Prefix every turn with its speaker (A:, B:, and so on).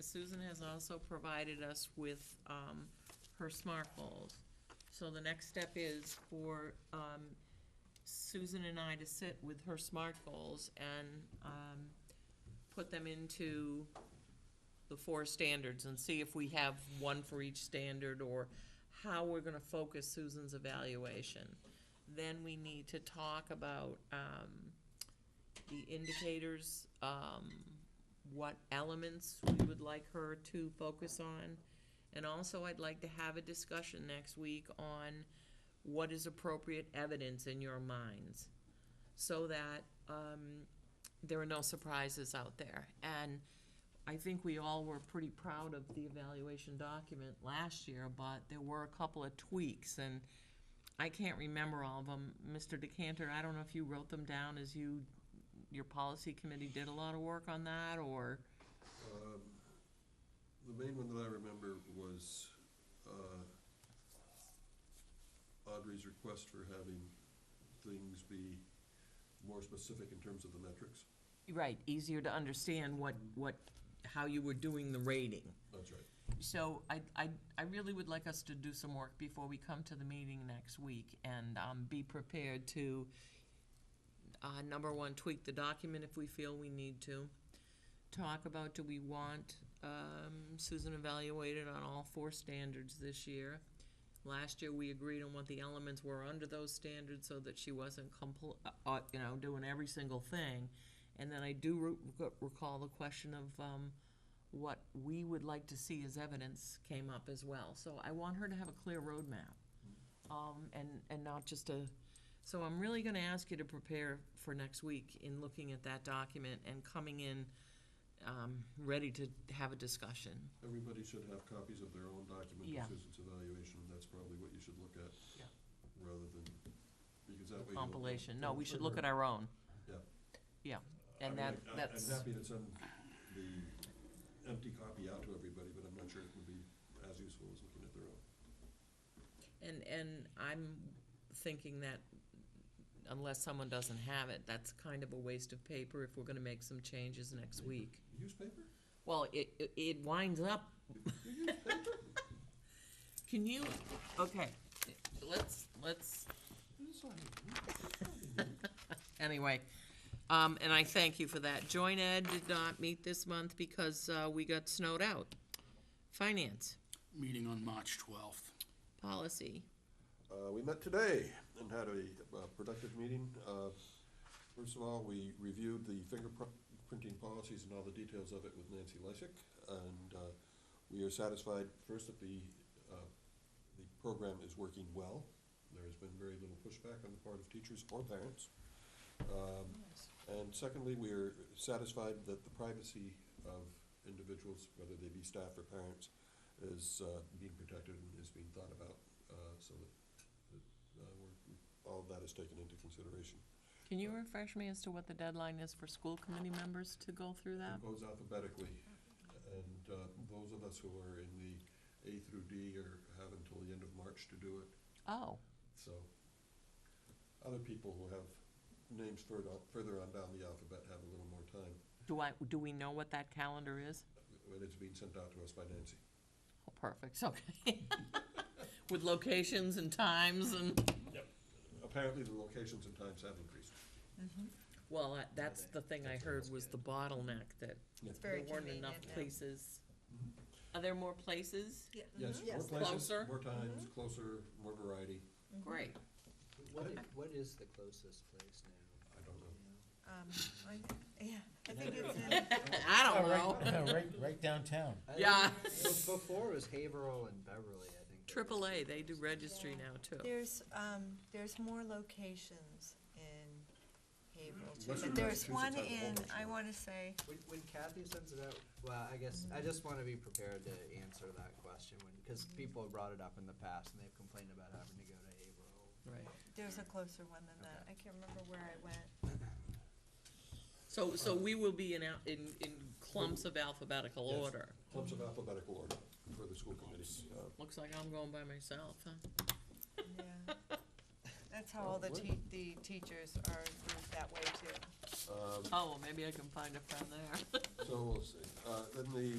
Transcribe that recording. A: Susan has also provided us with um, her SMART goals. So the next step is for um, Susan and I to sit with her SMART goals and um, put them into the four standards and see if we have one for each standard or how we're gonna focus Susan's evaluation. Then we need to talk about um, the indicators, um, what elements we would like her to focus on. And also, I'd like to have a discussion next week on what is appropriate evidence in your minds so that um, there are no surprises out there. And I think we all were pretty proud of the evaluation document last year, but there were a couple of tweaks, and I can't remember all of them. Mr. Decanter, I don't know if you wrote them down as you, your policy committee did a lot of work on that, or,
B: The main one that I remember was uh, Audrey's request for having things be more specific in terms of the metrics.
A: right, easier to understand what, what, how you were doing the rating.
B: That's right.
A: So I, I, I really would like us to do some work before we come to the meeting next week and um, be prepared to, uh, number one, tweak the document if we feel we need to. Talk about, do we want um, Susan evaluated on all four standards this year? Last year, we agreed on what the elements were under those standards so that she wasn't compl, uh, uh, you know, doing every single thing. And then I do re- recall the question of, um, what we would like to see as evidence came up as well. So I want her to have a clear roadmap, um, and, and not just a, so I'm really gonna ask you to prepare for next week in looking at that document and coming in, um, ready to have a discussion.
B: Everybody should have copies of their own document
A: Yeah.
B: of Susan's evaluation, and that's probably what you should look at.
A: Yeah.
B: Rather than, because that way. you'll-
A: Compilation, no, we should look at our own,
B: Yeah.
A: yeah,
B: I mean,
A: and that,
B: I- I-
A: that's.
B: I'm happy to send the empty copy out to everybody, but I'm not sure it would be as useful as looking at their own.
A: And, and I'm thinking that unless someone doesn't have it, that's kind of a waste of paper if we're gonna make some changes next week.
B: Use paper?
A: Well, it, it- it winds up. Can you, okay, let's, let's,
B: Use something.
A: anyway. Um, and I thank you for that. Joint Ed did not meet this month because, uh, we got snowed out. Finance,
C: meeting on March 12th.
A: policy,
B: Uh, We met today and had a uh, productive meeting. Uh, First of all, we reviewed the fingerprinting policies and all the details of it with Nancy Lysick, and uh, we are satisfied, first, that the, uh, the program is working well. There has been very little pushback on the part of teachers or parents. Um, And secondly, we are satisfied that the privacy of individuals, whether they be staff or parents, is uh, being protected and is being thought about, uh, so that, that uh, we're, all of that is taken into consideration.
A: can you refresh me as to what the deadline is for school committee members to go through that?
B: It goes alphabetically, and uh, those of us who are in the A through D are, have until the end of March to do it,
A: Oh,
B: so. Other people who have names further, further on down the alphabet have a little more time,
A: do I, do we know what that calendar is?
B: but it's being sent out to us by Nancy.
A: Oh, perfect, okay. With locations and times and,
B: Apparently, the locations and times have increased.
A: well, I- that's the thing I heard was the bottleneck that
B: It's
D: very
A: There weren't enough
D: convenient now.
A: places. Are there more places?
D: Yeah.
B: Yes, more
D: Yes.
A: Closer.
B: places, more times, closer, more variety.
D: mm-hmm.
A: Great.
E: What, i- what is the closest place now?
B: I don't know.
D: Um, I- Yeah, I think it's, uh,
A: I don't know.
F: Yeah, right, right downtown.
E: I-
A: Yeah.
E: Before it was Haverhill and Beverly, I think.
A: Triple A, they do registry now too.
D: there's, um, there's more locations in Haverhill too.
B: Western
D: But
B: Massachusetts
D: There's one
B: has a whole
D: in,
B: bunch
D: I
B: of-
D: wanna say,
E: When, when Kathy sends it out, well, I guess, I just wanna be prepared to answer that question when, cause people have brought it up in the past and they've complained about having to go to Haverhill.
A: Right.
D: there's a closer one than that. I can't remember where I went.
A: So, so we will be in, al- in, in clumps of alphabetical
B: Yes.
A: order.
B: Clumps of alphabetical order for the school committee. Uh,
A: Looks like I'm going by myself, huh?
D: Yeah. That's how all the te- the teachers are grouped that way too.
B: Uh,
A: Oh, well, maybe I can find a friend there.
B: So we'll see. Uh, Then the